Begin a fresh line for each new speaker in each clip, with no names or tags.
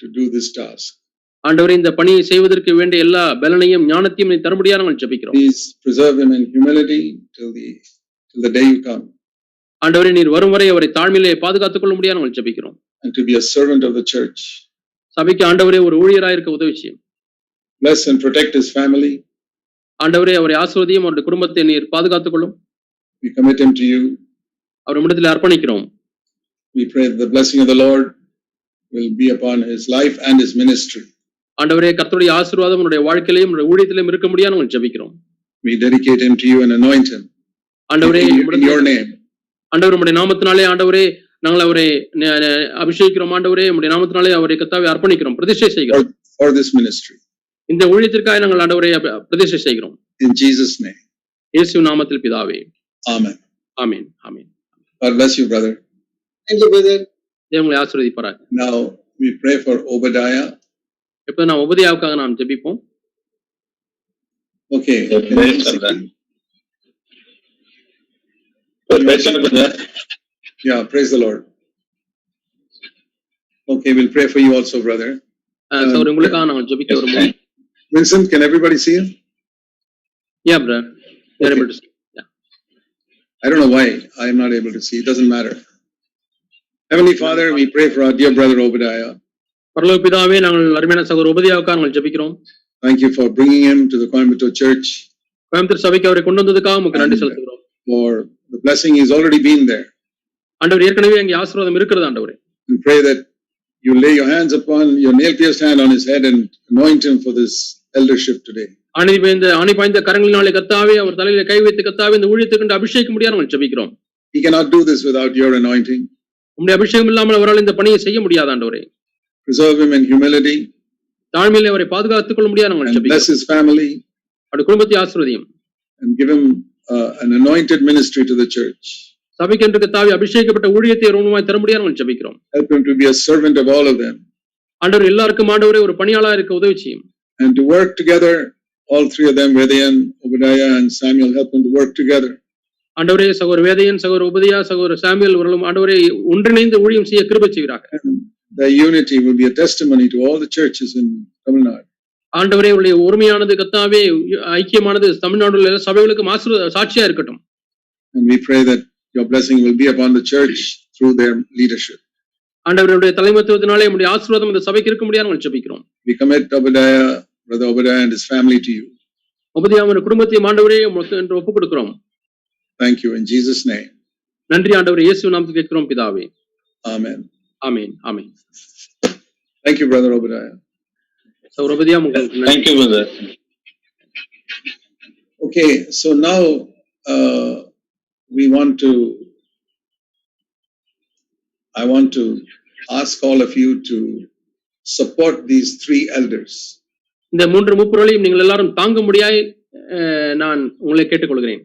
to do this task.
ஆண்டவரே இந்த பணியை செய்வதற்கு வேண்டிய எல்லா பலனையும் ஞானத்தையும் நீ தரும்படியா நாங்கள் ஜெபிக்கிறோம்
Please preserve him in humility till the, till the day you come
ஆண்டவரே நீர் வரும் வரை அவரை தாழ்மையிலே பாதுகாத்துக் கொள்ள முடியாது நாங்கள் ஜெபிக்கிறோம்
and to be a servant of the church.
சபைக்கு ஆண்டவரே ஒரு ஊழியராய் இருக்க உதவி செய்யும்
Bless and protect his family.
ஆண்டவரே அவரை ஆசிர்வதியும் அவருடைய குடும்பத்தை நீர் பாதுகாத்துக் கொள்ளும்
We commit him to you.
அவர் இடத்துல அர்ப்பணிக்கிறோம்
We pray that the blessing of the Lord will be upon his life and his ministry.
ஆண்டவரே கர்த்தருடைய ஆசீர்வாதம் உன்னுடைய வாழ்க்கையிலும் உன்னுடைய ஊழியத்திலும் இருக்க முடியாது நாங்கள் ஜெபிக்கிறோம்
We dedicate him to you and anoint him
ஆண்டவரே
in, in
உம்மிடத்தில்
your name.
ஆண்டவர் உம்முடைய நாமத்தினாலே ஆண்டவரே நாங்கள் அவரை ந- ந- அபிஷேகிக்கிறோம் ஆண்டவரே உம்முடைய நாமத்தினாலே அவரை கத்தாவை அர்ப்பணிக்கிறோம் பிரதிஷ்டை செய்கிறோம்
for this ministry.
இந்த ஊழியத்திற்காக நாங்கள் ஆண்டவரை அப- பிரதிஷ்டை செய்கிறோம்
In Jesus' name.
இயேசு நாமத்தில் பிதாவே
Amen.
ஆமீன் ஆமீன்
God bless you, brother.
Thank you, brother.
தேவன் உங்களை ஆசீர்வதிப்பாராக
Now we pray for Obadiah.
இப்போ நாம் உபதியாவுக்காக நாம் ஜெபிப்போம்
Okay.
Yes, brother. But better, brother.
Yeah, praise the Lord. Okay, we'll pray for you also, brother.
அஹ், சகோதரர் உங்களுக்காக நாங்கள் ஜெபிக்க வருவோம்
Vincent, can everybody see him?
ஏன் brother
Okay. I don't know why I'm not able to see. It doesn't matter. Heavenly Father, we pray for our dear brother Obadiah.
பரலோக பிதாவே நாங்கள் அருமையான சகோதரர் உபதியாவுக்காக நாங்கள் ஜெபிக்கிறோம்
Thank you for bringing him to the Coimbatore Church
Coimbatore சபைக்கு அவரை கொண்டு வந்ததுக்காக உங்களுக்கு நன்றி செலுத்துகிறோம்
for the blessing. He's already been there.
ஆண்டவர் ஏற்கனவே அங்கே ஆசீர்வாதம் இருக்கிறது ஆண்டவரே
And pray that you lay your hands upon your nail pierced hand on his head and anoint him for this eldership today.
அணி பாய்ந்த அணி பாய்ந்த கரங்களினாலே கத்தாவே அவர் தலையில கை வைத்து கத்தாவே இந்த ஊழியத்துக்கு என்று அபிஷேகம் முடியாது நாங்கள் ஜெபிக்கிறோம்
He cannot do this without your anointing.
உம்முடைய அபிஷேகம் இல்லாமல் அவரால் இந்த பணியை செய்ய முடியாது ஆண்டவரே
Preserve him in humility
தாழ்மையிலே அவரை பாதுகாத்துக் கொள்ள முடியாது நாங்கள்
and bless
ஜெபிக்கிறோம்
his family
அவருடைய குடும்பத்தை ஆசீர்வதியும்
and give him uh, an anointed ministry to the church.
சபைக்கு என்று கத்தாவே அபிஷேகப்பட்ட ஊழியத்தை ரூபமாய் தர முடியாது நாங்கள் ஜெபிக்கிறோம்
Help him to be a servant of all of them
ஆண்டவர் எல்லாருக்கும் ஆண்டவரே ஒரு பணியாளா இருக்க உதவி செய்யும்
and to work together. All three of them, Vedayan, Obadiah, and Samuel, help them to work together
ஆண்டவரே சகோதர வேதையன் சகோதர உபதியா சகோதர சாமியல் அவர்களும் ஆண்டவரே ஒன்றிணைந்து ஊழியம் செய்ய கிருபை செய்கிறாங்க
and their unity will be a testimony to all the churches in Tamil Nadu.
ஆண்டவரே உடைய ஒருமையானது கத்தாவே ஐக்கியமானது தமிழ்நாடுல உள்ள சபைகளுக்கும் ஆசீர்வாத சாட்சியா இருக்கட்டும்
And we pray that your blessing will be upon the church through their leadership.
ஆண்டவருடைய தலைமத்துவத்தினாலே நம்முடைய ஆசீர்வாதம் இந்த சபைக்கு இருக்க முடியாது நாங்கள் ஜெபிக்கிறோம்
We commit Obadiah, brother Obadiah and his family to you.
உபதியாமர் குடும்பத்தையும் ஆண்டவரே உமக்கு என்று ஒப்புக் கொடுக்கிறோம்
Thank you in Jesus' name.
நன்றி ஆண்டவர் இயேசு நாமத்தில் கேட்கிறோம் பிதாவே
Amen.
Amen amen
Thank you, brother Obadiah.
சகோதர உபதியாம் உங்களுக்கு நன்றி
Thank you, brother.
Okay, so now uh, we want to. I want to ask all of you to support these three elders.
இந்த மூன்று மூப்புரளையும் நீங்கள் எல்லாரும் தாங்க முடியாய் நான் உங்களை கேட்டுக்கொள்கிறேன்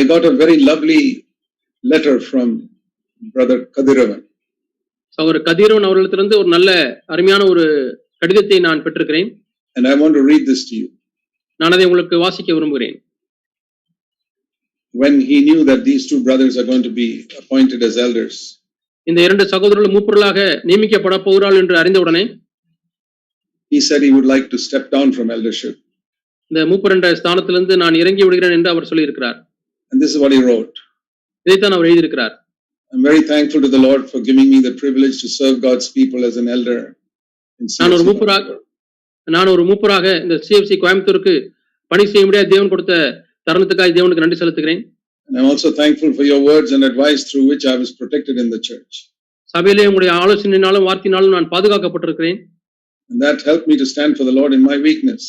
I got a very lovely letter from brother Kadiravan.
சகோதர கதிரவன் அவர்களிடத்திலிருந்து ஒரு நல்ல அருமையான ஒரு கடிதத்தை நான் பெற்றிருக்கிறேன்
and I want to read this to you.
நான் அதை உங்களுக்கு வாசிக்க விரும்புகிறேன்
When he knew that these two brothers are going to be appointed as elders,
இந்த இரண்டு சகோதரர்கள் மூப்பொருளாக நியமிக்கப்பட போகிறாள் என்று அறிந்தவுடனே
he said he would like to step down from eldership.
இந்த மூப்பர் என்ற ஸ்தானத்திலிருந்து நான் இறங்கி விடுகிறேன் என்று அவர் சொல்லியிருக்கிறார்
And this is what he wrote.
இதைத்தான் அவர் எழுதியிருக்கிறார்
I'm very thankful to the Lord for giving me the privilege to serve God's people as an elder. in E.
நான் ஒரு
CFC.
மூப்பராக நான் ஒரு மூப்பராக இந்த சிஎஃப்சி கோயம்புத்தூருக்கு பணி செய்ய முடியாத தேவன் கொடுத்த தருணத்துக்காக தேவனுக்கு நன்றி செலுத்துகிறேன்
And I'm also thankful for your words and advice through which I was protected in the church.
சபையிலே உங்களுடைய ஆலோசனையினாலும் வார்த்தையினாலும் நான் பாதுகாக்கப்பட்டிருக்கிறேன்
And that helped me to stand for the Lord in my weakness.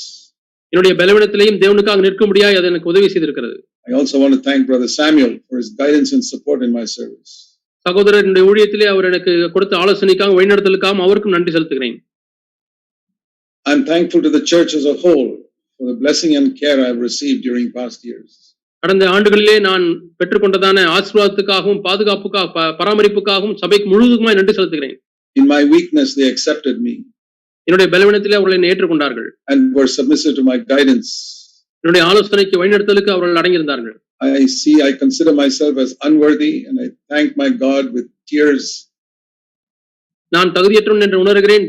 என்னுடைய பலவீனத்திலையும் தேவனுக்காக நிற்க முடியாது அது எனக்கு உதவி செய்திருக்கிறது
I also want to thank Brother Samuel for his guidance and support in my service.
சகோதரர் என்னுடைய ஊழியத்திலே அவர் எனக்கு கொடுத்த ஆலோசனைக்காக வழிநடத்தலுக்காக அவருக்கும் நன்றி செலுத்துகிறேன்
I'm thankful to the church as a whole for the blessing and care I've received during past years.
கடந்த ஆண்டுகளிலே நான் பெற்றுக்கொண்டதான ஆசீர்வாதத்துக்காகவும் பாதுகாப்புக்காக ப- பராமரிப்புக்காகவும் சபைக்கு முழுவதுமாய் நன்றி செலுத்துகிறேன்
In my weakness, they accepted me
என்னுடைய பலவீனத்திலே அவர்களை என்னை ஏற்றுக்கொண்டார்கள்
and were submissive to my guidance.
என்னுடைய ஆலோசனைக்கு வழிநடத்தலுக்கு அவர்கள் அடங்கியிருந்தார்கள்
I see, I consider myself as unworthy, and I thank my God with tears
நான் தகுதியற்றவன் என்று உணர்கிறேன்